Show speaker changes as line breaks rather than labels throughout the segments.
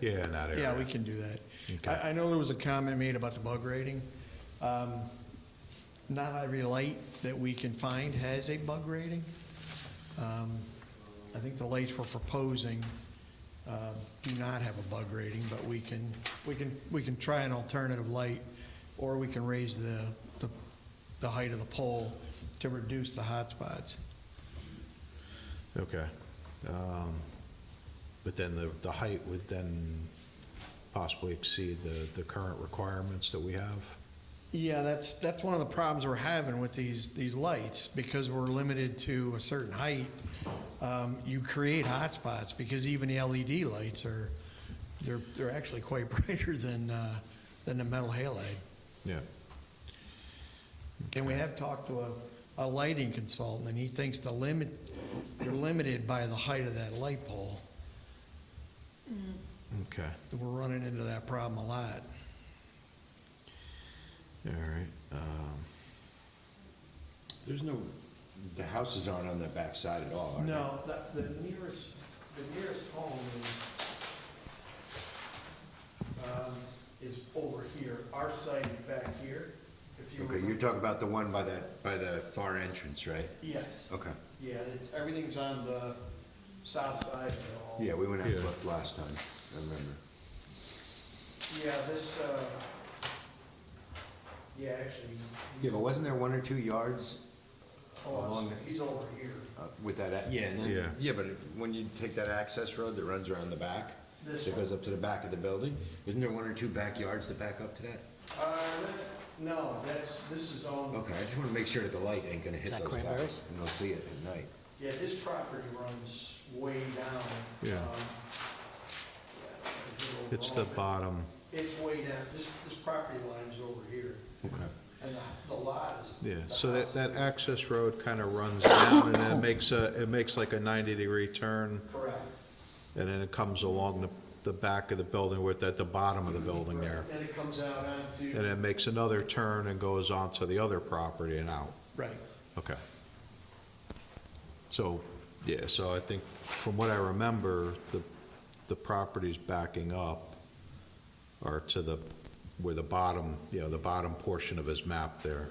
Yeah, in that area.
Yeah, we can do that.
Okay.
I, I know there was a comment made about the bug rating. Um, Not every light that we can find has a bug rating. Um, I think the lights we're proposing uh, do not have a bug rating, but we can, we can, we can try an alternative light, or we can raise the, the- the height of the pole to reduce the hotspots.
Okay. Um, But then the, the height would then possibly exceed the, the current requirements that we have?
Yeah, that's, that's one of the problems we're having with these, these lights, because we're limited to a certain height. Um, you create hotspots, because even the LED lights are, they're, they're actually quite brighter than, uh, than the metal halide.
Yeah.
And we have talked to a, a lighting consultant, and he thinks the limit, you're limited by the height of that light pole.
Okay,
We're running into that problem a lot.
all right. Um,
There's no, the houses aren't on the back side at all, are they?
No, the, the nearest, the nearest home is, um, is over here. Our site is back here, if you
Okay, you're
remember.
talking about the one by that, by the far entrance, right?
Yes,
Okay.
yeah, it's, everything's on the south side of the home.
Yeah, we went out
Yeah.
and looked last time, I remember.
Yeah, this, uh, yeah, actually. he's-
Yeah, but wasn't there one or two yards
oh, I'm
along
sorry, He's over here.
uh, with that, a- yeah, and
Yeah.
then, yeah, but when you take that access road that runs around the back,
This
that
one.
goes up to the back of the building, isn't there one or two backyards that back up to that?
Uh, no, that's, this is on,
Okay, I just wanna make sure that the light ain't gonna hit
that
those
cranberries?
guys, and they'll see it at night.
yeah, this property runs way down.
Yeah.
um, yeah, little
It's the
wrong.
bottom,
It's way down, this, this property line is over here,
Okay.
and the- the lot is.
yeah,
the
so that,
house
that
is-
access road kind of runs down and then it makes a, it makes like a 90-degree turn
Correct.
and then it comes along the, the back of the building with, at the bottom of the building there.
And it comes out onto.
And it makes another turn and goes onto the other property and out.
Right.
Okay. So, yeah, so I think, from what I remember, the, the properties backing up are to the, where the bottom, you know, the bottom portion of his map there.
right.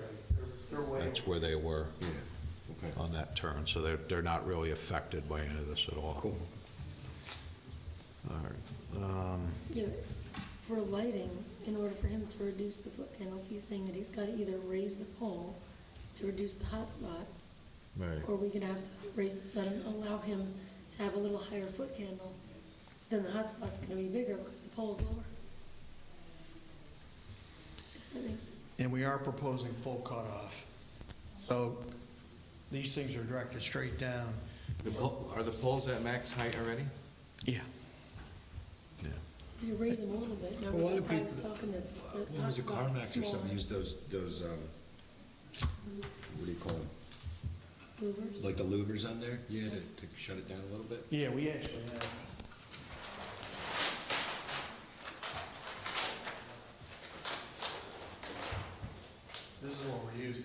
They're- They're way,
That's where they were
Yeah, okay.
on that turn, so they're, they're not really affected by any of this at all.
Cool.
All right. Um,
Yeah, for lighting, in order for him to reduce the foot candles, he's saying that he's gotta either raise the pole to reduce the hotspot,
Right.
or we could have to raise, let him, allow him to have a little higher foot candle. Then the hotspot's gonna be bigger because the pole's lower. If that makes sense.
and we are proposing full cutoff. So these things are directed straight down.
The pol- Are the poles at max height already?
Yeah.
Yeah.
You raise them a little bit,
lot
remember
of
that guy was
people-
talking that the hotspot's
When was it Carmax or something,
smaller.
used those, those, um, what do you call them?
Louvers.
Like the louvers on there? Yeah, to, to shut it down a little bit?
Yeah, we actually have. This is what we're using.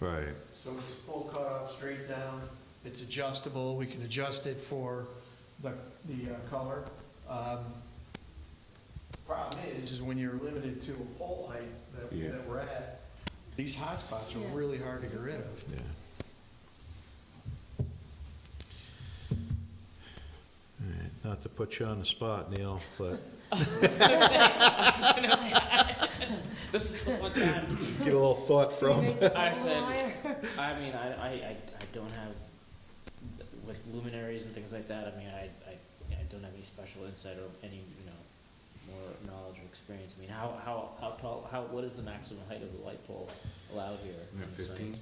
Right,
So it's full cutoff, straight down, it's adjustable, we can adjust it for the, the uh, color. Um, Problem is, is when you're limited to a pole height
Yeah.
that, that we're at, these hotspots
Yeah.
are really hard to get rid of.
yeah. All right, Not to put you on the spot, Neil, but
This is the one time,
get a little thought from.
Make the
I
pole
said-
higher.
I mean, I, I, I I don't have, like luminaries and things like that, I mean, I, I, I don't have any special insight or any, you know, more knowledge or experience, I mean, how, how, how tall, how, what is the maximum height of the light pole allowed here?
Yeah, 15?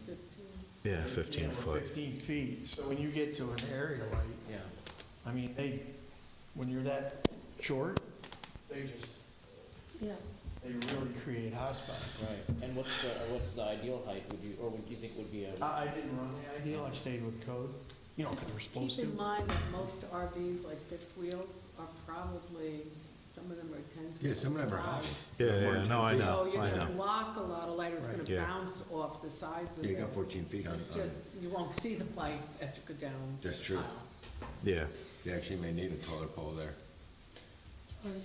Yeah,
You
15
know,
foot.
Fifteen feet, so when you get to an area light,
Yeah,
I mean, they, when you're that short, they just,
Yeah,
they really create hotspots.
right, and what's the, uh, what's the ideal height, would you, or would you think would be a,
I, I didn't run the ideal, I stayed with code, you know, because we're supposed
Keep
to.
in mind that most RVs, like fifth wheels, are probably, some of them are ten to.
Yeah, some of them are high.
12.
Yeah, yeah, no, I know,
So Oh, you're
I
gonna
know.
block a lot of light, or it's
Right.
gonna
Yeah.
bounce off the sides of
Yeah,
it.
you got 14 feet on, on,
Just, you won't see the light as you go down.
that's true.
Yeah.
You actually may need a taller pole there.
that's why I was